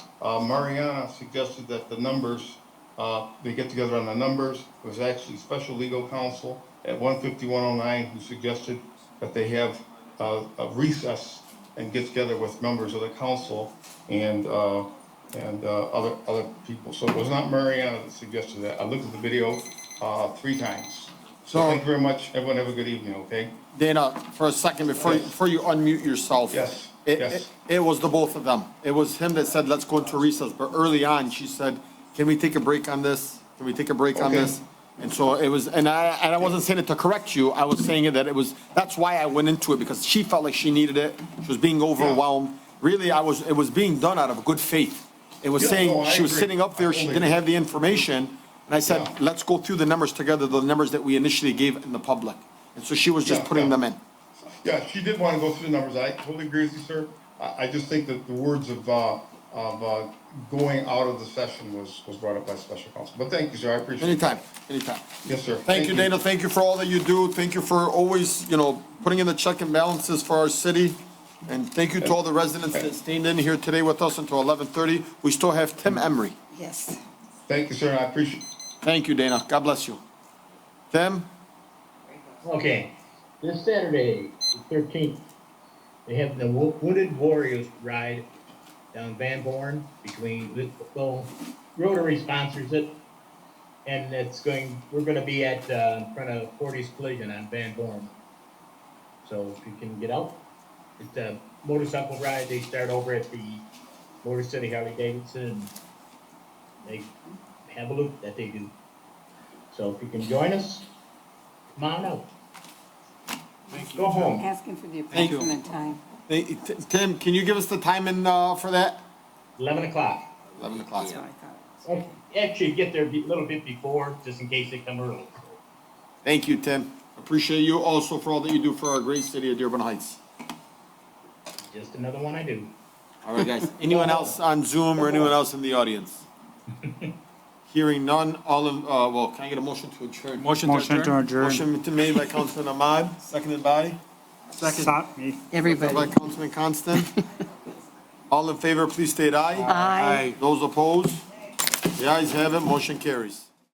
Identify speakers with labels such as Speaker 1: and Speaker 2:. Speaker 1: Uh, Mariana suggested that the numbers, uh, they get together on the numbers. It was actually special legal counsel at one fifty-one oh nine who suggested that they have, uh, a recess and get together with members of the council and, uh, and, uh, other, other people. So it was not Mariana that suggested that. I looked at the video, uh, three times. So
Speaker 2: So-
Speaker 1: thank you very much. Everyone have a good evening, okay?
Speaker 2: Dana, for a second, before,
Speaker 1: Yes.
Speaker 2: before you unmute yourself.
Speaker 1: Yes,
Speaker 2: It,
Speaker 1: yes.
Speaker 2: it- it was the both of them. It was him that said, let's go into recess, but early on, she said, can we take a break on this? Can we take a break on
Speaker 1: Okay.
Speaker 2: this? And so it was, and I, and I wasn't saying it to correct you, I was saying it that it was, that's why I went into it, because she felt like she needed it. She was being overwhelmed. Really, I was, it was being done out of good faith. It was
Speaker 1: Yeah, no,
Speaker 2: saying,
Speaker 1: I
Speaker 2: she was
Speaker 1: agree.
Speaker 2: sitting up there, she
Speaker 1: Totally
Speaker 2: didn't
Speaker 1: agree.
Speaker 2: have the information, and I said,
Speaker 1: Yeah.
Speaker 2: let's go through the numbers together, the numbers that we initially gave in the public. And so she was just
Speaker 1: Yeah,
Speaker 2: putting
Speaker 1: yeah.
Speaker 2: them in.
Speaker 1: Yeah, she did want to go through the numbers. I totally agree with you, sir. I, I just think that the words of, uh, of, uh, going out of the session was, was brought up by special counsel. But thank you, sir. I appreciate it.
Speaker 2: Anytime, anytime.
Speaker 1: Yes, sir.
Speaker 2: Thank you, Dana, thank you for all that you do, thank you for always, you know, putting in the check and balances for our city. And thank you to all the residents that stayed in here today with us until eleven thirty. We still have Tim Emery.
Speaker 3: Yes.
Speaker 1: Thank you, sir. I appreciate,
Speaker 2: Thank you, Dana, God bless you. Tim,
Speaker 4: Okay, this Saturday, the thirteenth, they have the Wo- Wooded Warriors ride down Van Born between, Lit- well, Rotary sponsors it. And it's going, we're gonna be at, uh, in front of Forties Collision on Van Born. So if you can get out, it's a motorcycle ride, they start over at the Motor City Harley Davidson. and They have a loop that they do. So if you can join us, come on out. Go home.
Speaker 3: Asking for the
Speaker 2: Thank you.
Speaker 3: approximate time.
Speaker 2: Hey, T- Tim, can you give us the time in, uh, for that?
Speaker 4: Eleven o'clock.
Speaker 2: Eleven o'clock.
Speaker 3: That's what I thought.
Speaker 4: Ac- Actually, get there a bit- little bit before, just in case they come early.
Speaker 2: Thank you, Tim, appreciate you also for all that you do for our great city of Dearborn Heights.
Speaker 4: Just another one I do.
Speaker 2: All right, guys. Anyone else on Zoom or anyone else in the audience? Hearing none, all of, uh, well, can I get a motion to adjourn?
Speaker 5: Motion to adjourn.
Speaker 2: Motion to made by Councilman Ahmad, seconded by?
Speaker 5: Stop me.
Speaker 3: Everybody.
Speaker 2: By Councilman Constant. All in favor, please state aye.
Speaker 3: Aye.
Speaker 2: Those opposed? The ayes have it, motion carries.